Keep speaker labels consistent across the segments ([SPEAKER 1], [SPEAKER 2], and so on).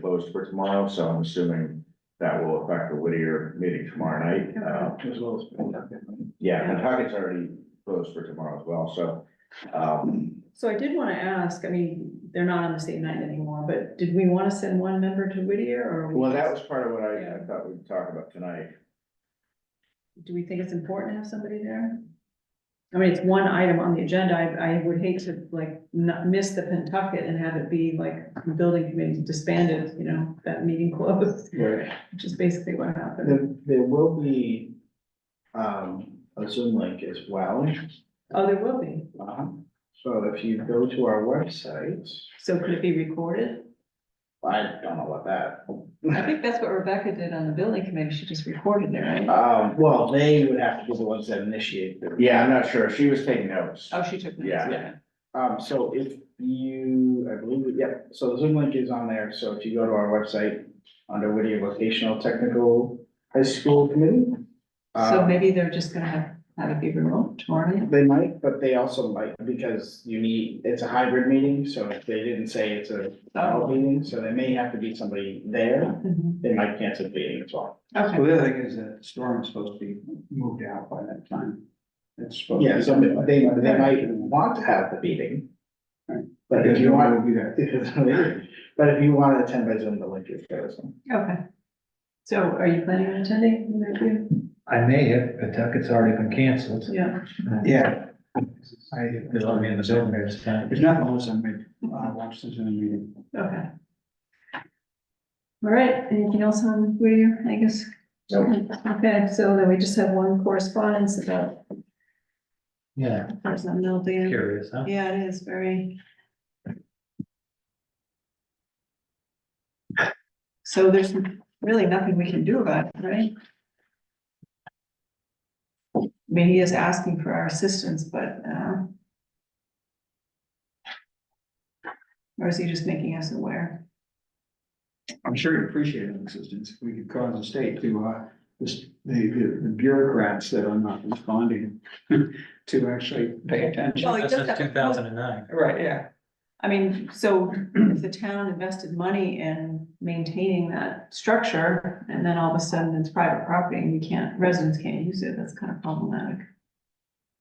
[SPEAKER 1] proposed for tomorrow, so I'm assuming that will affect the Whittier meeting tomorrow night. Uh,
[SPEAKER 2] As well as.
[SPEAKER 1] yeah, Pawtucket's already closed for tomorrow as well, so, um,
[SPEAKER 3] So I did wanna ask, I mean, they're not on the same night anymore, but did we wanna send one member to Whittier or? we
[SPEAKER 1] well, that was
[SPEAKER 3] just-
[SPEAKER 1] part of what I, I thought we'd talk about tonight.
[SPEAKER 3] Do we think it's important to have somebody there? I mean, it's one item on the agenda. I, I would hate to like not miss the Pentucket and have it be like the building committee disbanded, you know, that meeting closed,
[SPEAKER 2] Right,
[SPEAKER 3] which is basically what happened.
[SPEAKER 2] there, there will be, um, a Zoom link as well.
[SPEAKER 3] Oh, there will be.
[SPEAKER 2] Uh-huh. So if you go to our website,
[SPEAKER 3] So could it be recorded?
[SPEAKER 2] I don't know what that.
[SPEAKER 3] I think that's what Rebecca did on the building committee. She just recorded it, right?
[SPEAKER 2] Um, well, they would have to be the ones that initiate the.
[SPEAKER 1] Yeah, I'm not sure, she was taking notes.
[SPEAKER 3] Oh, she took notes.
[SPEAKER 1] Yeah.
[SPEAKER 3] okay.
[SPEAKER 2] Um, so if you, I believe, yeah, so the Zoom link is on there, so if you go to our website, under Whittier Vocational Technical High School Committee.
[SPEAKER 3] So
[SPEAKER 2] um,
[SPEAKER 3] maybe they're just gonna have, have it be remote tomorrow night?
[SPEAKER 2] They might, but they also might, because you need, it's a hybrid meeting, so if they didn't say it's a remote meeting, so there may have to be somebody there.
[SPEAKER 3] Mhm.
[SPEAKER 2] They might cancel the meeting as well.
[SPEAKER 3] Okay.
[SPEAKER 4] Well, the other thing is that storm is supposed to be moved out by that time. It's supposed. to
[SPEAKER 2] Yeah,
[SPEAKER 4] be-
[SPEAKER 2] so they, they might want to have the meeting.
[SPEAKER 4] Right.
[SPEAKER 2] But if
[SPEAKER 4] Because
[SPEAKER 2] you want,
[SPEAKER 4] nobody will be there.
[SPEAKER 2] but if you want to attend by Zoom, the link is there as well.
[SPEAKER 3] Okay. So are you planning on attending? Matthew?
[SPEAKER 5] I may have, but Tuckett's already been canceled.
[SPEAKER 3] Yeah,
[SPEAKER 4] Yeah,
[SPEAKER 5] I, because I'm in the building at the time.
[SPEAKER 4] there's nothing else I made, I watched this in a meeting.
[SPEAKER 3] okay. All right, anything else on Whittier, I guess? Okay, so then we just have one correspondence about
[SPEAKER 5] Yeah,
[SPEAKER 3] person Milton.
[SPEAKER 5] curious, huh?
[SPEAKER 3] Yeah, it is very. So there's really nothing we can do about it, right? I mean, he is asking for our assistance, but, uh. Or is he just making us aware?
[SPEAKER 4] I'm sure you appreciate an existence, we could cause the state to, uh, this, the, the the bureaucrats that are not responding to actually pay attention.
[SPEAKER 3] Well, it does have
[SPEAKER 5] Since
[SPEAKER 3] to-
[SPEAKER 5] two thousand and nine.
[SPEAKER 4] Right, yeah.
[SPEAKER 3] I mean, so if the town invested money in maintaining that structure, and then all of a sudden it's private property and we can't, residents can't use it, that's kind of problematic.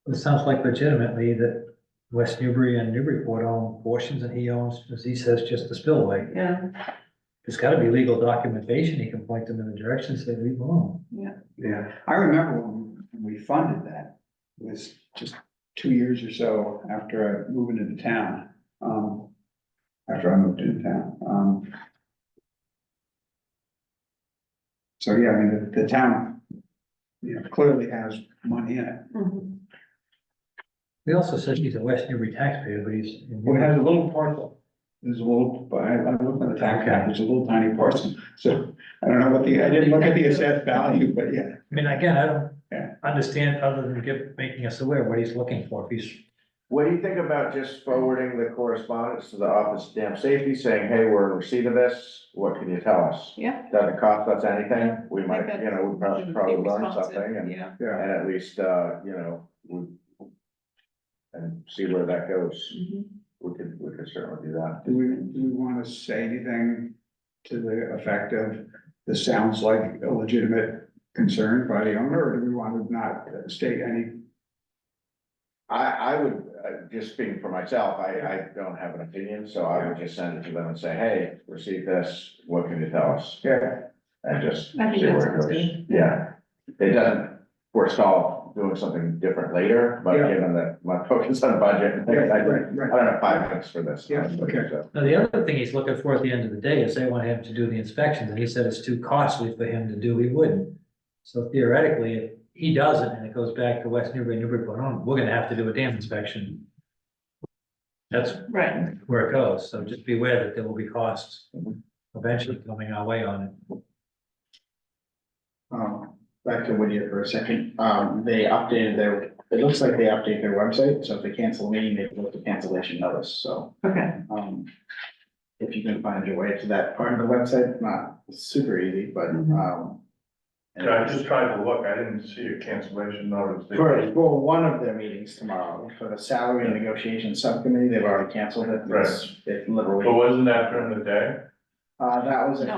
[SPEAKER 5] It sounds like legitimately that West Newbury and Newburyport own portions and he owns, as he says, just the spillway.
[SPEAKER 3] Yeah,
[SPEAKER 5] There's gotta be legal documentation. He can point them in the direction, and say leave alone.
[SPEAKER 4] Yeah, I remember when when we funded that, it was just two years or so after I moved into town. um, After I moved into town, um. So, yeah, I mean, the, the town, you know, clearly has money in it.
[SPEAKER 3] Mhm.
[SPEAKER 5] He also says he's a West Newbury taxpayer, but he's. in
[SPEAKER 4] Well, it
[SPEAKER 5] Newbury.
[SPEAKER 4] has a little parcel, there's a little, but I, I looked at the tax cap, there's a little tiny parcel, so I don't know what the, I didn't look at the assessed value, but yeah.
[SPEAKER 5] I mean, again, I
[SPEAKER 4] Yeah.
[SPEAKER 5] don't understand other than give, making us aware what he's looking for. If he's,
[SPEAKER 1] What do you think about just forwarding the correspondence to the Office of Dam Safety saying, hey, we're in receipt of this, what can you tell us?
[SPEAKER 3] yeah.
[SPEAKER 1] Doesn't cost us anything, we might,
[SPEAKER 3] that's-
[SPEAKER 1] you know, we probably, probably learn something and,
[SPEAKER 3] Yeah.
[SPEAKER 1] and at least, uh, you know, we and see where that goes,
[SPEAKER 3] Mhm.
[SPEAKER 1] we could, we could certainly do that.
[SPEAKER 4] Do we, do we want to say anything to the effect of, this sounds like a legitimate concern by the owner, or do we want to not state any?
[SPEAKER 1] I, I would, uh, just speaking for myself, I, I don't have an opinion, so I would just send it to them and say, hey, receive this, what can you tell us?
[SPEAKER 4] Yeah.
[SPEAKER 1] And just see
[SPEAKER 3] I think that
[SPEAKER 1] where it
[SPEAKER 3] sounds
[SPEAKER 1] goes.
[SPEAKER 3] good.
[SPEAKER 1] Yeah, it doesn't forestall doing something different later, but
[SPEAKER 4] Yeah.
[SPEAKER 1] given that my focus on budget, I
[SPEAKER 4] Yeah,
[SPEAKER 1] don't
[SPEAKER 4] right, right.
[SPEAKER 1] have five minutes for this.
[SPEAKER 4] Yeah,
[SPEAKER 1] honestly,
[SPEAKER 4] okay.
[SPEAKER 1] so.
[SPEAKER 5] now the other thing he's looking for at the end of the day is they want him to do the inspections and he said it's too costly for him to do, he wouldn't. So theoretically, if he does it and it goes back to West Newbury, Newburyport, oh, we're gonna have to do a dam inspection. That's
[SPEAKER 3] Right,
[SPEAKER 5] where it goes, so just be aware that there will be costs eventually coming our way on it.
[SPEAKER 2] Um, back to Whittier for a second, um, they updated their, it looks like they updated their website, so if they cancel a meeting, they put the cancellation notice, so.
[SPEAKER 3] okay,
[SPEAKER 2] Um, if you can find your way to that part of the website, not super easy, but,
[SPEAKER 3] Mhm.
[SPEAKER 2] um.
[SPEAKER 6] Yeah, I just tried to look, I didn't see a cancellation notice. They-
[SPEAKER 2] For, for one of their meetings tomorrow, for the salary and negotiation subcommittee, they've already canceled it, it's, it's
[SPEAKER 6] But
[SPEAKER 2] literally,
[SPEAKER 6] wasn't that during the day?
[SPEAKER 7] Uh, that was a
[SPEAKER 2] No,